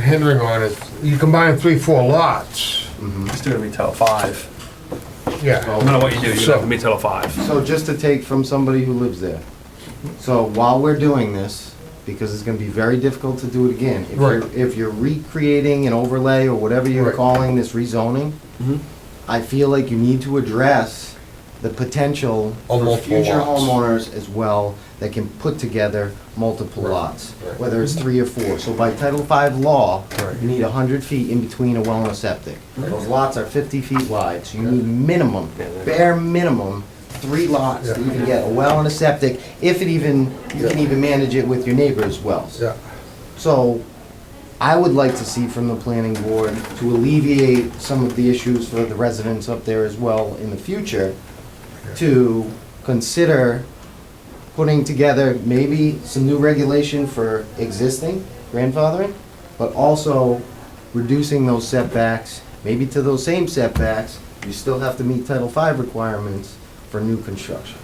hindering on is, you combine three, four lots, Just do a retail of five. No yeah. matter what you do, you Oh. So- have a retail of five. So just to take from somebody who lives there. So while we're doing this, because it's gonna be very difficult to do it again. if you're- Right. If you're recreating an overlay or whatever you're Right. Mm-hmm. calling this rezoning, Mhm. I feel like you need to address the potential Of for multiple future lots. homeowners as well that can put together multiple Right. lots, Right. whether it's three or four. So by Title V law, Right. you need hundred feet in between a well and a septic. Those lots are fifty feet wide, so you need minimum, bare minimum, three lots that you can get a well and a septic, if it even, you can Yeah. even manage it with your neighbor's wells. Yeah, So, I would like to see from the planning board to alleviate some of the issues for the residents up there as well in the future, to consider putting together maybe some new regulation for existing grandfathering, but also reducing those setbacks, maybe to those same setbacks, you still have to meet Title V requirements for new construction.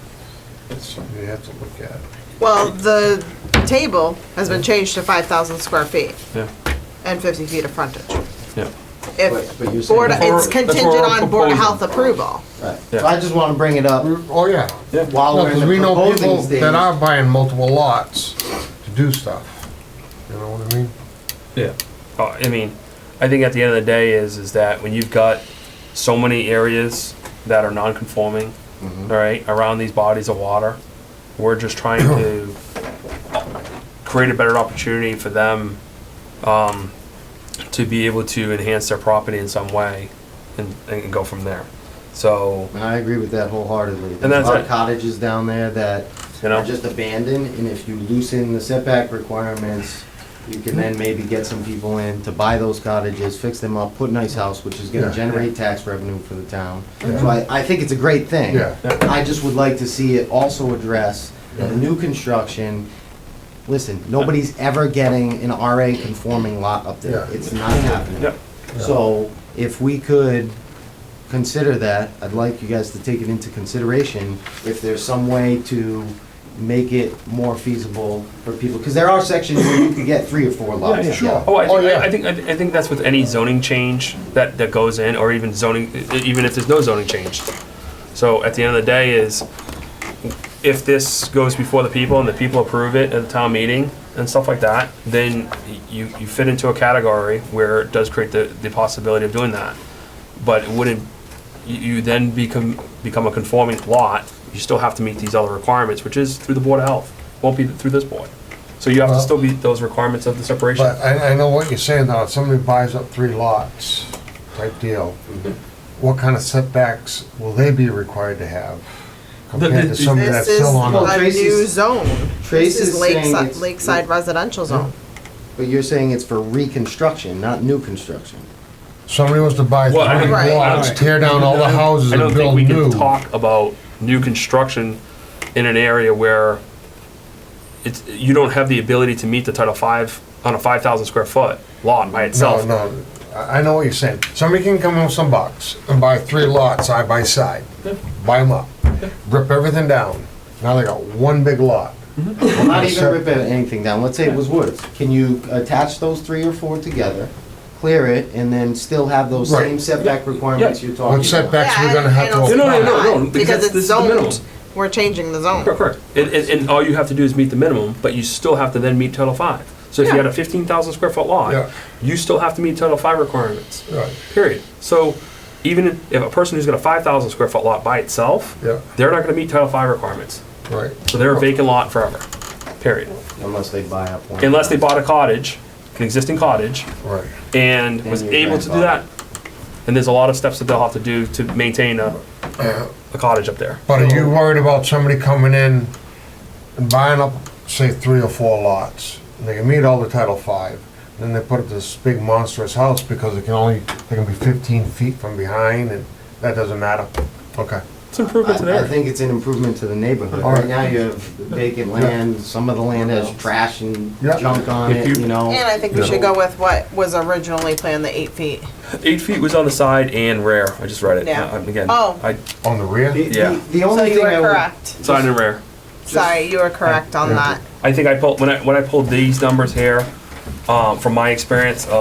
that's something you have to look at. Well, the table has been changed to five thousand square feet Yeah, and fifty feet of frontage. yeah. But- If but you're saying- Board, That's what it's we're- that's what contingent we're on Board of proposing. Health approval. Right, so Yeah. I just wanna bring it up Oh, yeah. Yeah. while No, we're in because the we know people proposing stage. that are buying multiple lots to do stuff. You know what I mean? Yeah. Uh, I mean, I think at the end of the day is is that when you've got so many areas that are non-conforming, Mhm. all right, around these bodies of water, we're just trying to create a better opportunity for them um, to be able to enhance their property in some way and, and go from there. So, And I agree with that wholeheartedly. There's that's a lot it. of cottages down there that You know? are just abandoned, and if you loosen the setback requirements, you can then maybe get some people in to buy those cottages, fix them up, put a nice house, which is Yeah. gonna generate tax revenue for the town. So I, I think it's a great thing. Yeah. I just would like to see it also address the new construction. Listen, nobody's ever getting an RA conforming lot up there. Yeah. It's not happening. Yep. So if we could consider that, I'd like you guys to take it into consideration if there's some way to make it more feasible for people, because there are sections where you could get three or four lots. yeah, together. Oh, I, Oh, think yeah. I, I think I, thi- I think that's with any zoning change that, that goes in, or even zoning, e- even if there's no zoning change. So at the end of the day, is if this goes before the people and the people approve it at the town meeting and stuff like that, then y- you you fit into a category where it does create the, the possibility of doing that. But it wouldn't you, you then become become a conforming lot? You still have to meet these other requirements, which is through the board of health. Won't be through this board. So you have Well- to still meet those requirements of the separation. But I, I know what you're saying though, if somebody buys up three lots type deal, what kind of setbacks will they be required to have? Compared to somebody This that's is still on a, Well, a Tracy's- new zone. Trace This is is saying Lakeside, it's- Lakeside residential zone. But you're saying it's for reconstruction, not new construction. somebody was to buy Well, I three mean, Right. lots, tear down all the houses I and don't think build we can new. talk about new construction in an area where it's, you don't have the ability to meet the Title Five on a five thousand square foot lot by No, itself. no, I, I know what you're saying. Somebody can come in with some bucks and buy three lots side by side, buy them up, rip everything down. Now they got one big lot. Well, not even rip anything down, let's say it was woods. Can you attach those three or four together, clear it, and then still have those Right. same setback requirements Yeah. you're talking about? What setbacks Yeah, we're gonna have and to. No, it'll no, apply. no, no, still no, not, because Because this it's is the minimum. zoned, we're changing the zone. Correct, correct. And, and, and all you have to do is meet the minimum, but you still have to then meet Title Five. So if you Yeah. had a fifteen thousand square foot Yeah. lot, you still have to meet Title Five requirements. Right. Period. So even if a person who's got a five thousand square foot lot by itself, Yeah. they're not gonna meet Title Five requirements. Right. So they're a vacant lot forever, period. Unless they buy up one. Unless they bought a cottage, an existing cottage, Right. and Then was you're able to do that. And there's a lot of steps that they'll have to do to maintain a, a cottage up there. But are you worried about somebody coming in and buying up, say, three or four lots? and They can meet all the Title Five, then they put up this big monstrous house because it can only, they can be fifteen feet from behind and that doesn't matter? Okay. It's an improvement to I, I there. think it's an improvement to the neighborhood. All right. Right now, you have vacant land, some of the land has trash and Yeah. junk on If it, you- you know? And I think we should go with what was originally planned, the eight feet. Eight feet was on the side and rare. I just read it. Yeah. Uh, Again, Oh. I, On the The- rear? the- Yeah. The So only you thing were I would. correct. side and rare. Sorry, you were correct on that. I think I pulled, when I, when I pulled these numbers here, um, from my experience,